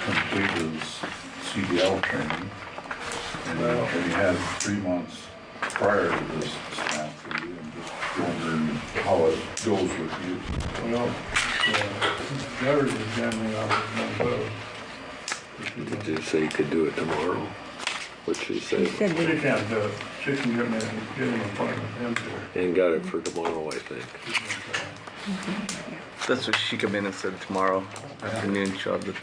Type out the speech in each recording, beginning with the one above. complete his CDL training. And he- and he had three months prior to this snap for you, and just wondering how it goes with you. Well, uh, gutters is generally out of my boat. Did you say you could do it tomorrow? What'd she She say? said she can't do it. She can get me, get an appointment in there. And got it for tomorrow, I think. That's what she came in and said tomorrow afternoon, she'll have the,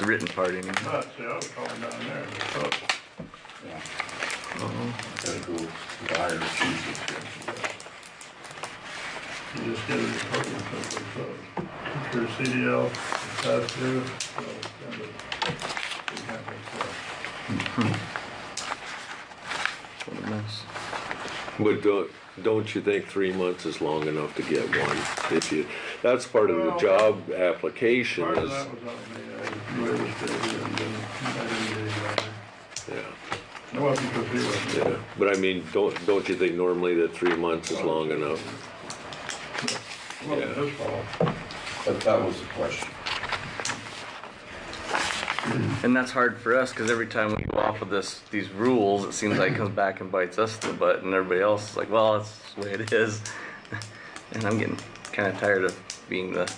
the written part in. But, see, I was calling down there, but Yeah. Gotta go to the higher chief if you have to. you just get an appointment simply, so. It's your CDL, that's due, so it's kind of, it's kind of, uh, What a mess. But don't, don't you think three months is long enough to get one? If you, that's part of the Well- job application Part of is, that was on me, I waited for it, and then I didn't get it. yeah, It wasn't because he was yeah. But I mean, don't, don't you think normally that three months is long enough? It wasn't his fault. But that was the question. And that's hard for us, cause every time we go off of this, these rules, it seems like it comes back and bites us in the butt and everybody else is like, well, that's the way it is. And I'm getting kinda tired of being the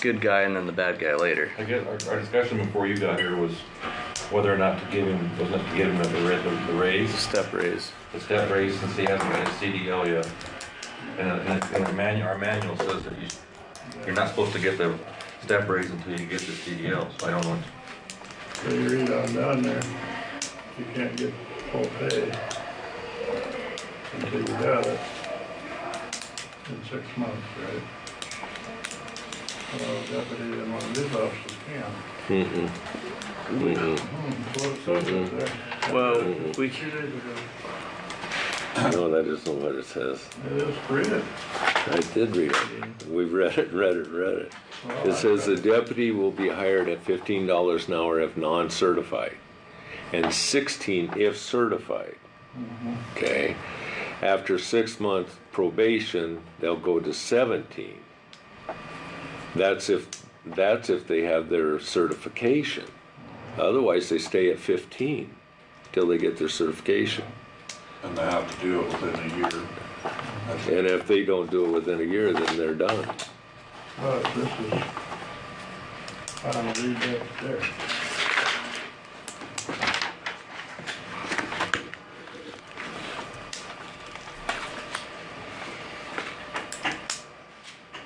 good guy and then the bad guy later. I guess our, our discussion before you got here was whether or not to give him, was not to give him the ra- the raise, Step raise. the step raise since he hasn't got his CDL yet. And, and and our manual, our manual says that you, you're not supposed to get the step raise until you get the CDL, so I don't know. So you read on down there, you can't get full pay until you got it in six months, right? Well, deputy and one of his officers can. Mm-mm. Mm-mm. Hmm, Mm-hmm. so it says it there. Well, we, Mm-hmm. Two days ago, No, that isn't what it says. it is created. I did read it. We've read it, read it, read it. Well, It says the deputy will be hired at fifteen dollars an hour if non-certified, and sixteen if certified. Okay, after six months probation, they'll go to seventeen. That's if, that's if they have their certification. Otherwise, they stay at fifteen till they get their certification. And they have to do it within a year. That's And if they don't do it within a year, then they're done. But this is, I don't read that there.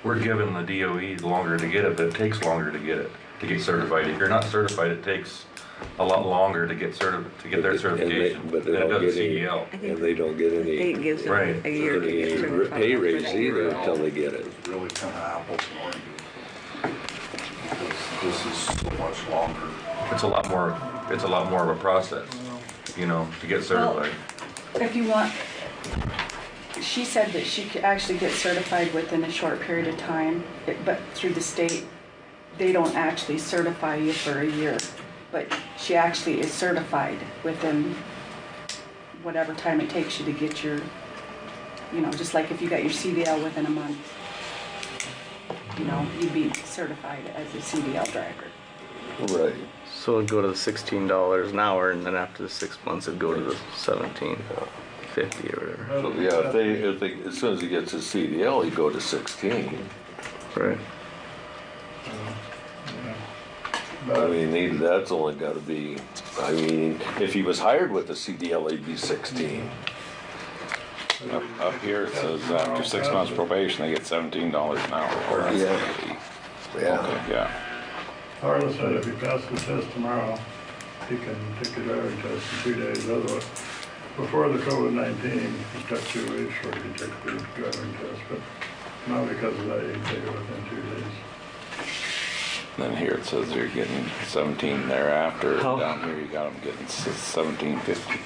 We're giving the DOE longer to get it, but it takes longer to get it, to get certified. If you're not certified, it takes a lot longer to get certi, to get their And they- certification but than they it don't does get any- CDL. I think And they don't get the any. state gives them Right. a year to get Any certified. pay raise either until they get it. really kind of apples and oranges. Because This is so much longer. It's a lot more, it's a lot more of a process, you know, to get certified. If you want, she said that she could actually get certified within a short period of time, it- but through the state, they don't actually certify you for a year. But she actually is certified within whatever time it takes you to get your, you know, just like if you got your CDL within a month. You know, you'd be certified as a CDL driver. Right. so it'd go to the sixteen dollars an hour and then after the six months it'd go to the seventeen fifty or whatever. So, yeah, if they, if they, as soon as he gets his CDL, he go to sixteen. Right. I Uh, But mean, he, that's only gotta be, I mean, if he was hired with a CDL, he'd be sixteen. Up, up here it says after six months probation, they get seventeen dollars an hour. Yeah. Yeah. Okay, yeah. Harlan said if he passes the test tomorrow, he can take a driving test in two days, otherwise, before the COVID nineteen, it took two weeks for him to take the driving test, but now because of that, he can take it within two days. Then here it says they're getting seventeen thereafter. Down here you got them getting seventeen fifty,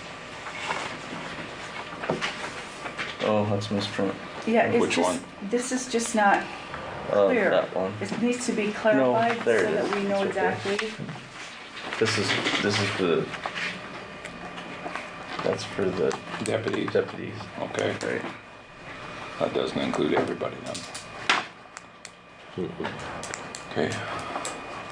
Oh, that's misprint. Yeah, it's Which just- one? This is just not Oh, clear. that one. It needs to be clarified so there it is. that we know It's right there. exactly. This is this is the. That's for the deputies. deputies. Okay, Right. that doesn't include everybody then. Okay.